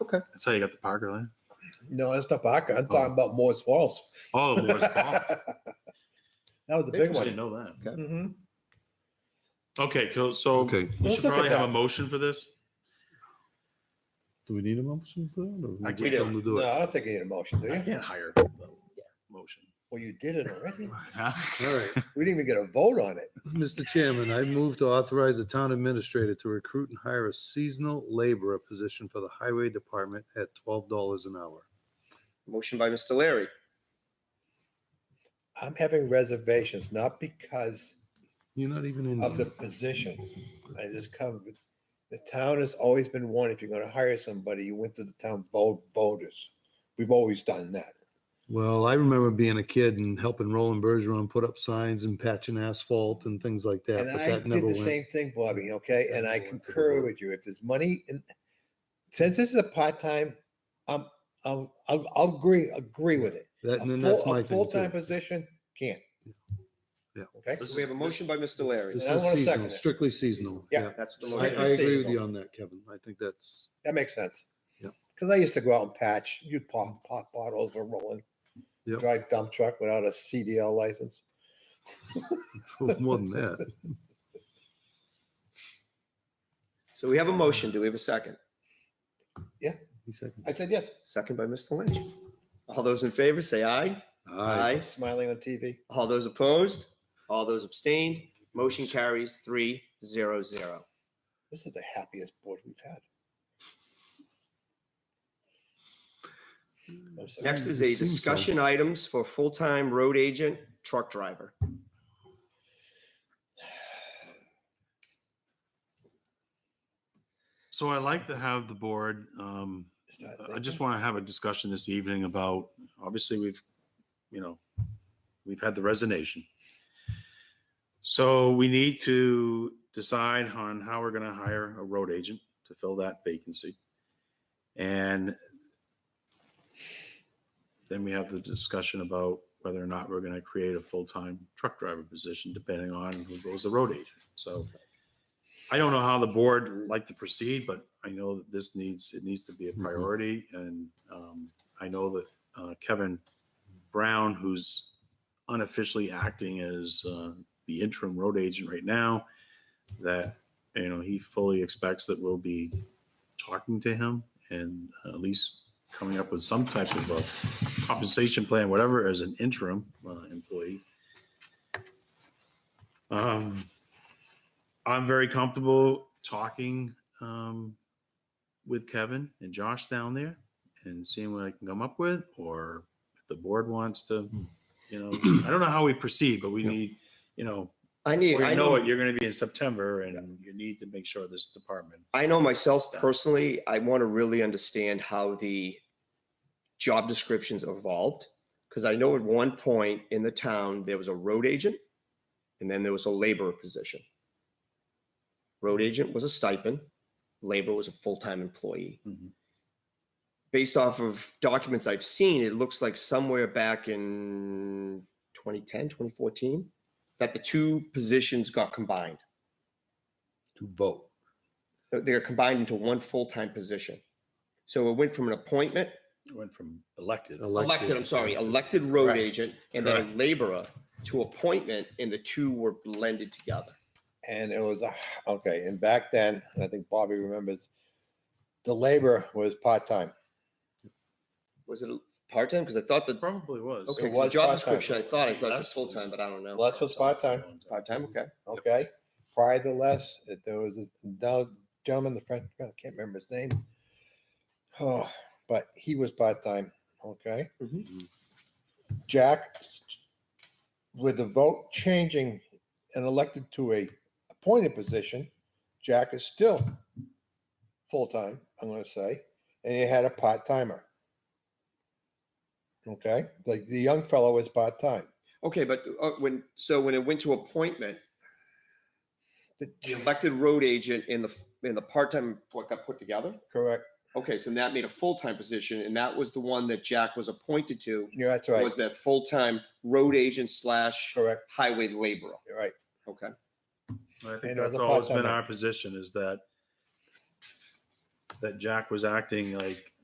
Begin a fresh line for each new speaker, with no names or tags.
Okay.
That's how you got the Parker line.
No, that's not Parker.
Oh.
I'm talking about Moore's Falls.
Oh, Moore's Fall.
that was the big
I
one.
didn't know that.
Mm-hmm.
Okay, cool. So
Okay.
we
Let's
should
look at
probably have a
that.
motion for this.
Do we need a motion for that? Or
I We
we just
do.
tell them to do
No,
it?
I don't think you need a motion, do
I
you?
can't hire a motion.
Well, you did it already.
All right.
We didn't even get a vote on it.
Mr. Chairman, I move to authorize the town administrator to recruit and hire a seasonal laborer position for the highway department at twelve dollars an hour.
Motion by Mr. Larry,
I'm having reservations, not because
You're not even in.
of the
there.
position. I just come, the town has always been one, if you're gonna hire somebody, you went to the town vote voters. We've always done that.
Well, I remember being a kid and helping Roland Bergeron put up signs and patching asphalt and things like that,
And
but
I
that
did
never
the
went.
same thing, Bobby, okay?
That
And I
never went to the
concur
vote.
with you. If there's money in, since this is a part-time, I'm, I'm, I'll, I'll agree, agree with it.
That,
A
and then
full-
that's my
a
thing
Full-time
too.
position, can't.
Yeah.
Okay?
This is-
we have a motion by Mr. Larry.
This
And I
is
wanna second
seasonal,
it.
strictly seasonal.
Yeah.
That's the
I,
Strictly
I
motion.
agree with
seasonal.
you on that, Kevin. I think that's,
That makes sense.
Yep.
Because I used to go out and patch, you'd pop, pop bottles for rolling,
Yep.
drive dump truck without a CDL license.
more than that.
So we have a motion. Do we have a second?
He seconded.
I said, yes,
Second by Mr. Lynch. All those in favor, say aye.
Aye.
smiling on TV.
All those opposed? All those abstained? Motion carries three zero zero.
This is the happiest board we've had. I'm sorry.
Next is
It
a
seems so.
discussion items for full-time road agent, truck driver.
So I like to have the board, um,
Is that
I
thinking?
just want to have a discussion this evening about, obviously, we've, you know, we've had the resignation. So we need to decide on how we're going to hire a road agent to fill that vacancy. And then we have the discussion about whether or not we're going to create a full-time truck driver position, depending on who goes the road agent. So I don't know how the board would like to proceed, but I know that this needs, it needs to be a
Mhm.
priority. And um, I know that uh, Kevin Brown, who's unofficially acting as uh, the interim road agent right now, that, you know, he fully expects that we'll be talking to him and uh, at least coming up with some type of a compensation plan, whatever, as an interim uh, employee. Um, I'm very comfortable talking um, with Kevin and Josh down there and seeing what I can come up with, or if the board wants to, you know, I don't know how we proceed, but we
Yeah.
need, you know,
I
we
need, I
know
know,
what you're going to be in September, and you need to make sure this department
I know myself personally, I want to really understand how the job descriptions evolved. Because I know at one point in the town, there was a road agent and then there was a laborer position. Road agent was a stipend, labor was a full-time employee.
Mhm.
Based off of documents I've seen, it looks like somewhere back in 2010, 2014, that the two positions got combined.
To vote.
They're- They're combined into one full-time position. So it went from an appointment,
went from elected.
elected, I'm sorry, elected road
Correct.
agent, and then a laborer to appointment, and the two were blended together.
And it was, a okay, and back then, and I think Bobby remembers, the labor was part-time.
Was it a part-time? Because I thought that,
Probably was.
okay, 'cause the
was
job
part-time.
description, I thought, I thought it
Less
was full-time, but I don't know.
Less was part-time,
Part-time, okay.
okay? Prior to less, that there was a now gentleman, the French, I can't remember his name. Oh, but he was part-time, okay?
Mhm.
Jack, with the vote changing and elected to a appointed position, Jack is still full-time, I'm gonna say, and he had a part-timer. Okay, like the young fellow is part-time.
Okay, but uh, when, so when it went to appointment,
The-
the elected road agent and the, and the part-time, what got put together?
Correct,
Okay, so that made a full-time position, and that was the one that Jack was appointed to,
yeah, that's right,
was that full-time road agent slash
correct,
highway laborer.
you're right.
Okay,
I think
And it was
that's
a
always been
part-timer.
our position is that that Jack was acting like